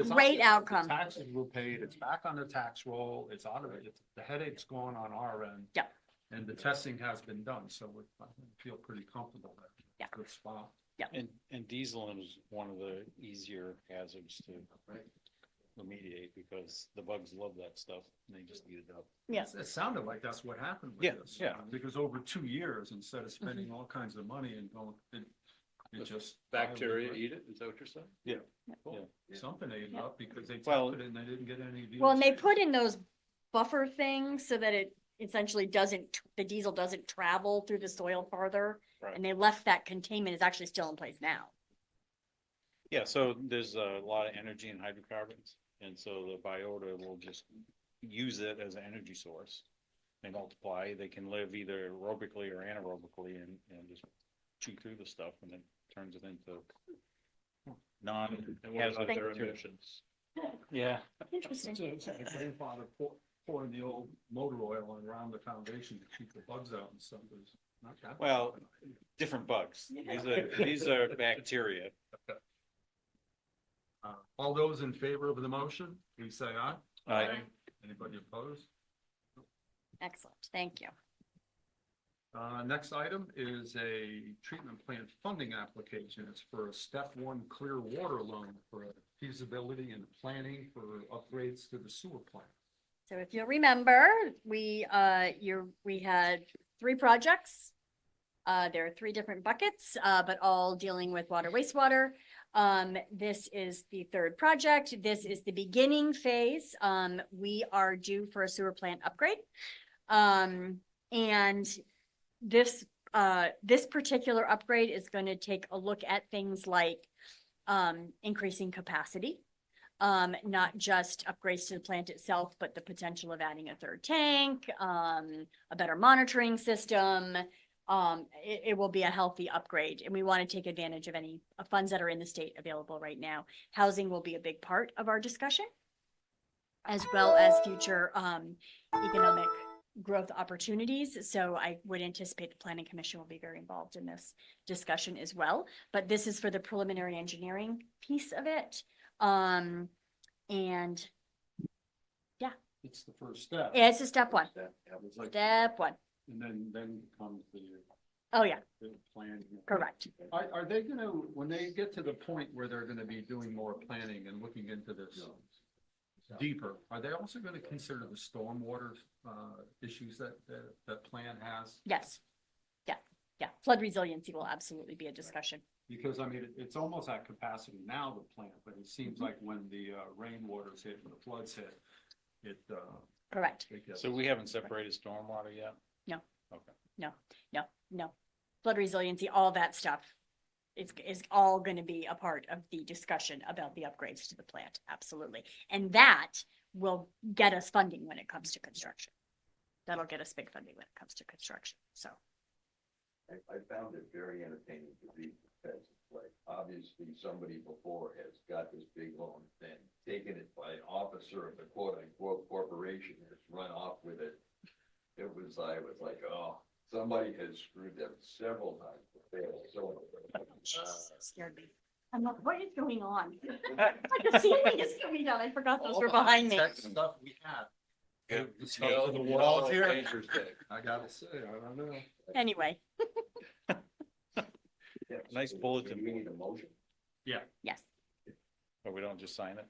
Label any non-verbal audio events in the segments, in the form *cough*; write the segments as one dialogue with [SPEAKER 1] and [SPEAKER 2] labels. [SPEAKER 1] It's not just
[SPEAKER 2] Great
[SPEAKER 1] the
[SPEAKER 2] outcome.
[SPEAKER 1] Taxes were paid, it's back on the tax roll, it's out of it, It's- the headache's gone on our end.
[SPEAKER 2] Yeah.
[SPEAKER 1] And the testing has been done, so we I feel pretty comfortable there.
[SPEAKER 2] Yeah.
[SPEAKER 1] Good spot.
[SPEAKER 3] And, and diesel is one of the easier hazards to remediate because the bugs love that stuff and they just eat it up.
[SPEAKER 2] Yeah.
[SPEAKER 1] It's- It sounded like that's what happened
[SPEAKER 3] Yeah,
[SPEAKER 1] with this. um,
[SPEAKER 3] yeah.
[SPEAKER 1] Because over two years, instead
[SPEAKER 2] Mm-hmm.
[SPEAKER 1] of spending all kinds of money and going, it, it just. Oh,
[SPEAKER 4] Bacteria eat it, is that what you're saying?
[SPEAKER 1] Something ate it up because they
[SPEAKER 3] Well-
[SPEAKER 1] tested it and they didn't get any.
[SPEAKER 2] Well, and they
[SPEAKER 1] deals.
[SPEAKER 2] put in those buffer things so that it essentially doesn't, tr- the diesel doesn't travel through the soil farther.
[SPEAKER 3] Right.
[SPEAKER 2] And they left that containment is actually still in place now.
[SPEAKER 3] Yeah, so there's a lot of energy in hydrocarbons, and so the biota will just use it as an energy source. They multiply, they can live either aerobically or anaerobically and, and just chew through the stuff and then turns it into non.
[SPEAKER 4] And what about
[SPEAKER 2] Thank
[SPEAKER 4] their
[SPEAKER 3] you.
[SPEAKER 4] emissions?
[SPEAKER 3] Yeah,
[SPEAKER 2] Interesting.
[SPEAKER 1] It's like My grandfather pour- pouring the old motor oil around the foundation to keep the bugs out and stuff. It's not that.
[SPEAKER 3] well, different bugs. These are, these are bacteria.
[SPEAKER 1] Uh, All those in favor of the motion, please say aye.
[SPEAKER 3] Aye.
[SPEAKER 1] Anybody opposed?
[SPEAKER 2] Excellent. Thank you.
[SPEAKER 1] Uh, next item is a treatment plant funding application. It's for a step one clear water loan for feasibility and planning for upgrades to the sewer plant.
[SPEAKER 2] So if you'll remember, we, uh, you're, we had three projects. Uh, there are three different buckets, uh, but all dealing with water wastewater. Um, this is the third project. This is the beginning phase. Um, we are due for a sewer plant upgrade. Um, and this, uh, this particular upgrade is going to take a look at things like um, increasing capacity um, not just upgrades to the plant itself, but the potential of adding a third tank, um, a better monitoring system. Um, it, it will be a healthy upgrade and we want to take advantage of any uh, funds that are in the state available right now. Housing will be a big part of our discussion as well as future, um, economic growth opportunities. So I would anticipate the planning commission will be very involved in this discussion as well. But this is for the preliminary engineering piece of it. Um, and
[SPEAKER 1] It's the first step.
[SPEAKER 2] yeah, it's a step one,
[SPEAKER 1] That was like-
[SPEAKER 2] step one.
[SPEAKER 1] And then, then comes the
[SPEAKER 2] Oh, yeah,
[SPEAKER 1] the planning.
[SPEAKER 2] correct.
[SPEAKER 1] Are, are they gonna, when they get to the point where they're gonna be doing more planning and looking into this deeper, are they also gonna consider the stormwater, uh, issues that, that, that plan has?
[SPEAKER 2] Yes. Yeah, yeah. Flood resiliency will absolutely be a discussion.
[SPEAKER 1] Because, I mean, it- it's almost at capacity now, the plant, but it seems like when the, uh, rainwaters hit and the floods hit, it, uh,
[SPEAKER 2] Correct.
[SPEAKER 1] it gets.
[SPEAKER 3] So we haven't separated stormwater yet?
[SPEAKER 2] No, no. Flood resiliency, all that stuff is, is all going to be a part of the discussion about the upgrades to the plant. Absolutely. And that will get us funding when it comes to construction. That'll get us big funding when it comes to construction. So,
[SPEAKER 5] I, I found it very entertaining to read because like, obviously somebody before has got this big loan, then taken it by an officer of the quote unquote corporation has run off with it. It was, I was like, oh, somebody has screwed them several times. but They are so.
[SPEAKER 2] Jesus, that scared me. I'm like, what is going on? *laughs* Like the ceiling is coming down. I forgot those were behind me.
[SPEAKER 1] That stuff we had.
[SPEAKER 4] Yeah.
[SPEAKER 1] The stuff with the
[SPEAKER 4] Yeah.
[SPEAKER 1] walls here,
[SPEAKER 4] Interesting.
[SPEAKER 1] I gotta say, I don't know.
[SPEAKER 2] Anyway,
[SPEAKER 3] Nice bulletin
[SPEAKER 5] Do We need a motion.
[SPEAKER 2] yes,
[SPEAKER 3] But we don't just sign it?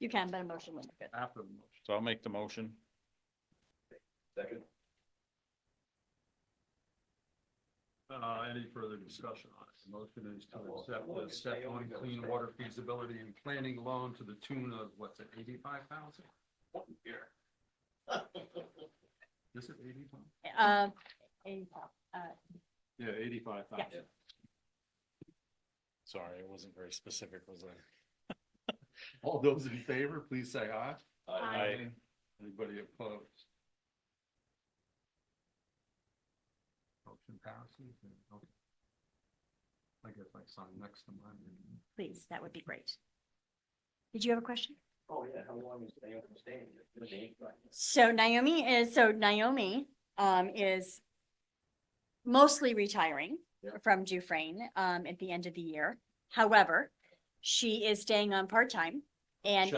[SPEAKER 2] you can, but a motion would be good.
[SPEAKER 1] After the motion.
[SPEAKER 3] So I'll make the motion.
[SPEAKER 5] Second,
[SPEAKER 1] Uh, any further discussion on it? The Motion is to accept the step one clean water feasibility and planning loan to the tune of, what's it, eighty-five thousand?
[SPEAKER 5] here.
[SPEAKER 1] Is it eighty-five?
[SPEAKER 2] Uh, and, uh,
[SPEAKER 1] Yeah, eighty-five thousand.
[SPEAKER 3] Sorry, it wasn't very specific, was I?
[SPEAKER 1] All those in favor, please say aye.
[SPEAKER 2] Aye.
[SPEAKER 1] Anybody opposed? Motion passes. and- okay. I guess I sign next to mine.
[SPEAKER 2] Please, that would be great. Did you have a question?
[SPEAKER 5] Oh, yeah, how long is they open staying? Just eight months.
[SPEAKER 2] So Naomi is, so Naomi, um, is mostly retiring
[SPEAKER 5] Yeah.
[SPEAKER 2] from Dufrain, um, at the end of the year. However, she is staying on part-time And